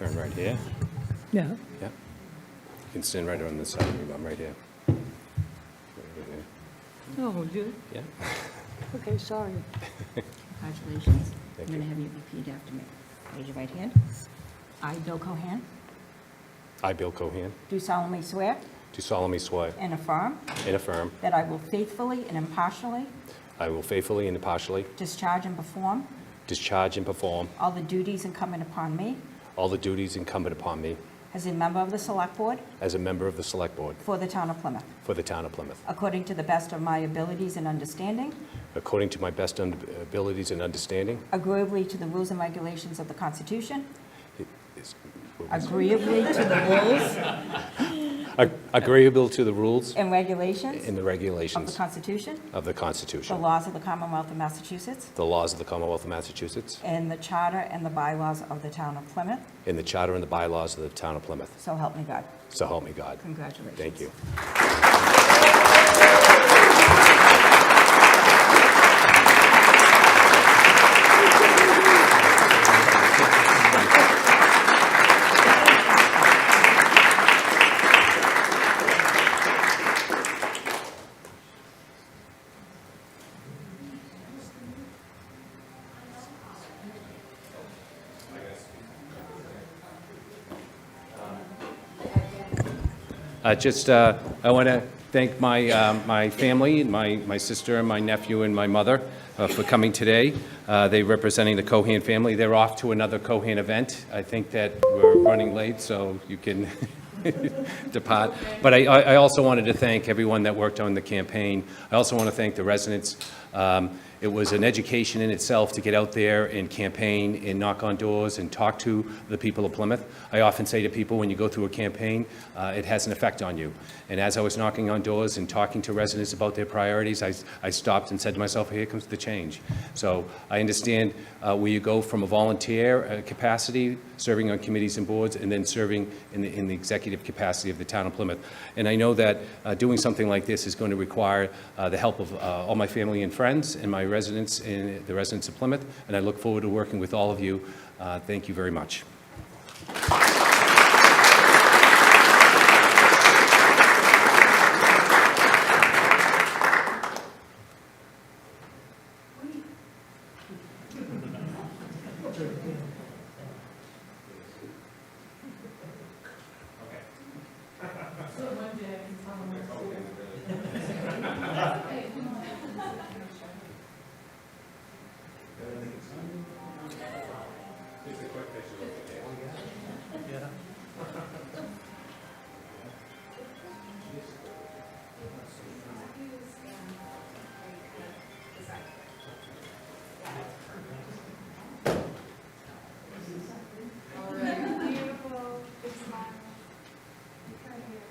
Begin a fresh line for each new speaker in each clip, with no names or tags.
Yeah,
Yeah,
yeah. You can stand right on this side of me, I'm right here.
Oh, good.
Yeah,
Okay, sorry.
Congratulations. I'm
Thank
going to
you.
have you repeat after me. Raise your right hand. I, Bill Cohan,
I, Bill Cohen,
do solemnly swear
do solemnly swear
and affirm
and affirm
that I will faithfully and impartially
I will faithfully and impartially
discharge and perform
discharge and perform
all the duties incumbent upon me
all the duties incumbent upon me
as a member of the Select Board
as a member of the Select Board
for the Town of Plymouth,
for the Town of Plymouth,
according to the best of my abilities and understanding,
according to my best un- abilities and understanding.
agreeably to the rules and regulations of the Constitution,
It is-
agreeably to the rules
Ag- Agreeable to the rules
and regulations
and the
of the
regulations
Constitution,
of the
the
Constitution,
laws of the Commonwealth of Massachusetts,
the laws of the Commonwealth of Massachusetts,
and the charter and the bylaws of the Town of Plymouth,
and the charter and the bylaws of the Town of Plymouth.
So help me God.
So help me God.
Congratulations.
Thank you. Uh, Just, uh, I want to thank my, um, my family, my, my sister, and my nephew, and my mother uh, for coming today. Uh, They representing the Cohen family. They're off to another Cohen event. I think that we're running late, so you can depart. But I, I I also wanted to thank everyone that worked on the campaign. I also want to thank the residents. Um, It was an education in itself to get out there and campaign and knock on doors and talk to the people of Plymouth. I often say to people, when you go through a campaign, uh, it has an effect on you. And as I was knocking on doors and talking to residents about their priorities, I, I stopped and said to myself, here comes the change. So I understand uh, where you go from a volunteer uh, capacity, serving on committees and boards, and then serving in the, in the executive capacity of the town of Plymouth. And I know that uh, doing something like this is going to require uh, the help of uh, all my family and friends and my residents, in the residents of Plymouth, and I look forward to working with all of you. Uh, Thank you very much.
Beautiful, big smile. Right here,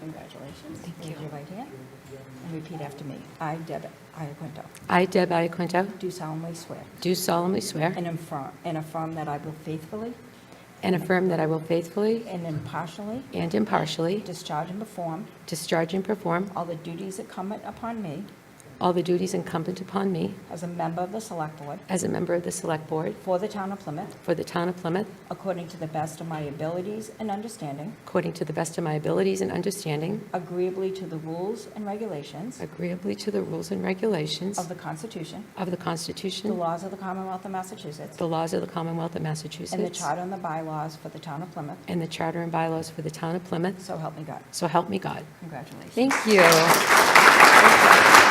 Congratulations. Thank you. Raise your right hand and repeat after me. I, Deb Iaquinto,
I, Deb Iaquinto,
do solemnly swear
do solemnly swear
and affirm, and affirm that I will faithfully
and affirm that I will faithfully
and impartially
and impartially
discharge and perform
discharge and perform
all the duties incumbent upon me
all the duties incumbent upon me
as a member of the Select Board
as a member of the Select Board
for the Town of Plymouth,
for the Town of Plymouth,
according to the best of my abilities and understanding,
according to the best of my abilities and understanding,
agreeably to the rules and regulations
agreeably to the rules and regulations
of the Constitution,
of the
the
Constitution,
laws of the Commonwealth of Massachusetts,
the laws of the Commonwealth of Massachusetts,
and the charter and the bylaws for the Town of Plymouth,
and the charter and bylaws for the Town of Plymouth,
so help me God.
so help me God.
Congratulations.
Thank you.